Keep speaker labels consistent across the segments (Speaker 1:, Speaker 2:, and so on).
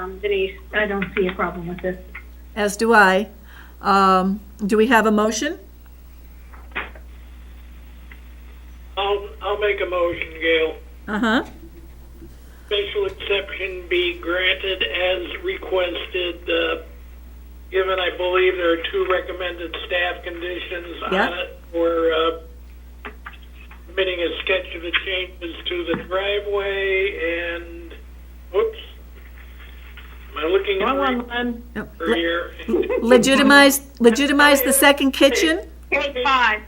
Speaker 1: Um, Denise, I don't see a problem with this.
Speaker 2: As do I. Um, Do we have a motion?
Speaker 3: I'll, I'll make a motion, Gail.
Speaker 2: Uh-huh.
Speaker 3: Special exception be granted as requested, uh, given I believe there are two recommended staff conditions on
Speaker 2: Yeah.
Speaker 3: it. We're, uh, submitting a sketch of the changes to the driveway and, whoops. Am I looking at
Speaker 1: One,
Speaker 3: right
Speaker 1: one,
Speaker 2: No,
Speaker 3: over
Speaker 2: le-
Speaker 3: here?
Speaker 2: Legitimize, legitimize the second kitchen?
Speaker 1: eight, five.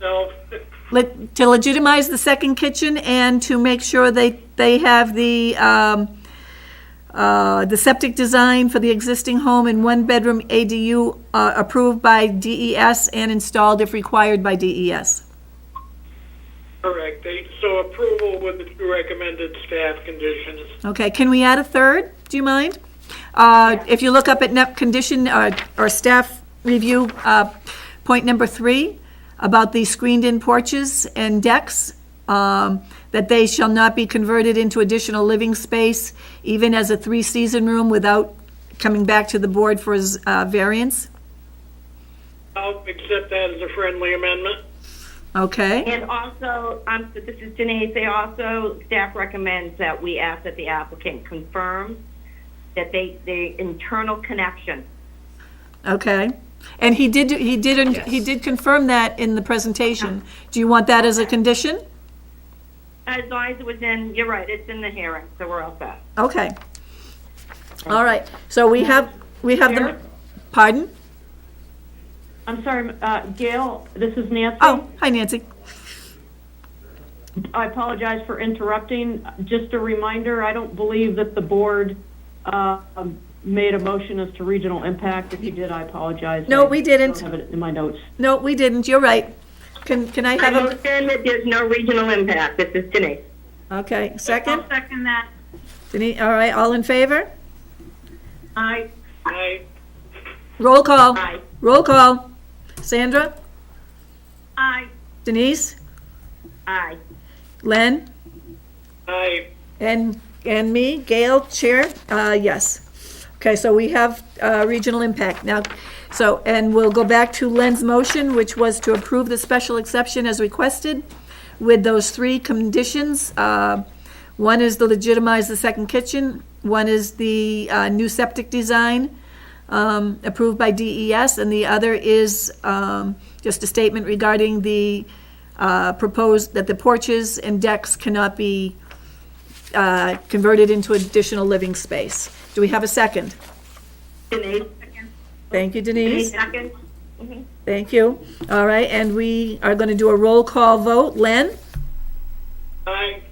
Speaker 3: No.
Speaker 2: le- to legitimize the second kitchen and to make sure they, they have the, um, uh, the septic design for the existing home and one-bedroom ADU uh, approved by DES and installed if required by E DES.
Speaker 3: Correct. They- So approval with the two recommended staff conditions.
Speaker 2: Okay, can we add a third? Do you mind? Uh, If you look up at NEP condition uh, or staff review, uh, point number three, about the screened-in porches and decks, um, that they shall not be converted into additional living space, even as a three-season room without coming back to the board for his, uh, variance,
Speaker 3: I'll accept that as a friendly amendment.
Speaker 2: okay?
Speaker 4: And also, um, so this is Denise, they also, staff recommends that we ask that the applicant confirm that they, the internal connection.
Speaker 2: Okay. And he did, he did, he did confirm that in the presentation. Do you want that as a condition?
Speaker 4: As long as it was in, you're right, it's in the hearing, so we're all set.
Speaker 2: Okay. All right, so we have, we have the,
Speaker 1: Sarah?
Speaker 2: pardon?
Speaker 1: I'm sorry, uh, Gail, this is Nancy.
Speaker 2: Oh, hi Nancy.
Speaker 1: I apologize for interrupting. Just a reminder, I don't believe that the board uh, um, made a motion as to regional impact. If you did, I apologize.
Speaker 2: No,
Speaker 1: I
Speaker 2: we didn't.
Speaker 1: don't have it in my notes.
Speaker 2: No, we didn't, you're right. Can, can I
Speaker 4: I
Speaker 2: have
Speaker 4: understand that there's no regional impact, this is Denise.
Speaker 2: a, okay, second?
Speaker 1: second that.
Speaker 2: Denise, all right, all in favor?
Speaker 1: I,
Speaker 3: Aye.
Speaker 2: Roll call.
Speaker 4: Aye.
Speaker 2: Roll call. Sandra?
Speaker 1: I.
Speaker 2: Denise?
Speaker 4: Aye.
Speaker 2: Len?
Speaker 3: Aye.
Speaker 2: And, and me, Gail, Chair, uh, yes. Okay, so we have, uh, regional impact now. So, and we'll go back to Len's motion, which was to approve the special exception as requested with those three conditions. Uh, one is to legitimize the second kitchen, one is the, uh, new septic design, um, approved by DES, and the other is, um, just a statement regarding the, uh, proposed, that the porches and decks cannot be, uh, converted into additional living space. Do we have a second?
Speaker 4: Denise?
Speaker 2: Thank you,
Speaker 4: Denise,
Speaker 2: Denise.
Speaker 4: second? Mm-hmm.
Speaker 2: Thank you. All right, and we are going to do a roll call vote. Len?
Speaker 3: Aye.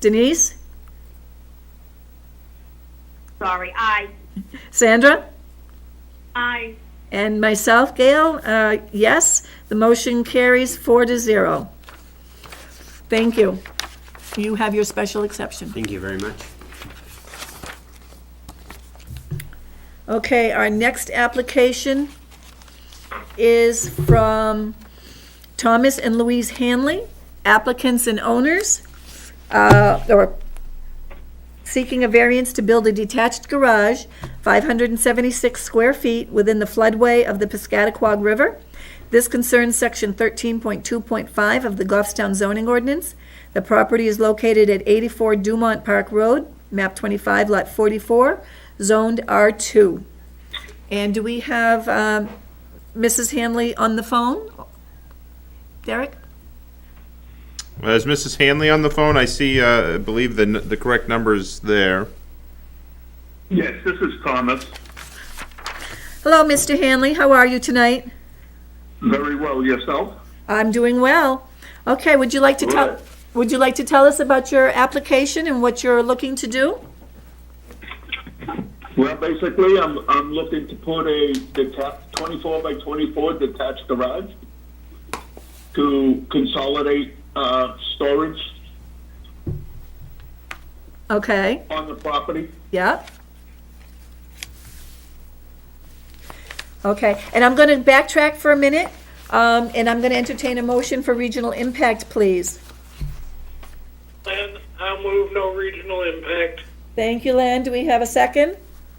Speaker 2: Denise?
Speaker 4: Sorry, aye.
Speaker 2: Sandra?
Speaker 4: Aye.
Speaker 2: And myself, Gail? Uh, Yes, the motion carries four to zero. Thank you. You have your special exception.
Speaker 5: Thank you very much.
Speaker 2: Okay, our next application is from Thomas and Louise Hanley, applicants and owners, uh, or seeking a variance to build a detached garage, 576 square feet, within the floodway of the Piscataquag River. This concerns Section 13.2.5 of the Goffstown zoning ordinance. The property is located at 84 Dumont Park Road, map 25, lot 44, zoned R2. And do we have um, Mrs. Hanley on the phone? Derek?
Speaker 6: Uh, Is Mrs. Hanley on the phone? I see, uh, I believe the, n- the correct number is there.
Speaker 7: Yes, this is Thomas.
Speaker 2: Hello, Mr. Hanley, how are you tonight?
Speaker 7: Very well, yourself?
Speaker 2: I'm doing well. Okay, would you like to tell,
Speaker 7: Good.
Speaker 2: would you like to tell us about your application and what you're looking to do?
Speaker 7: Well, basically, I'm, I'm looking to put a detached, 24 by 24 detached garage to consolidate, uh, storage
Speaker 2: Okay,
Speaker 7: on the property.
Speaker 2: yep. Okay, and I'm going to backtrack for a minute, um, and I'm going to entertain a motion for regional impact, please.
Speaker 3: Len, I'll move no regional impact.
Speaker 2: Thank you, Len. Do we have a second?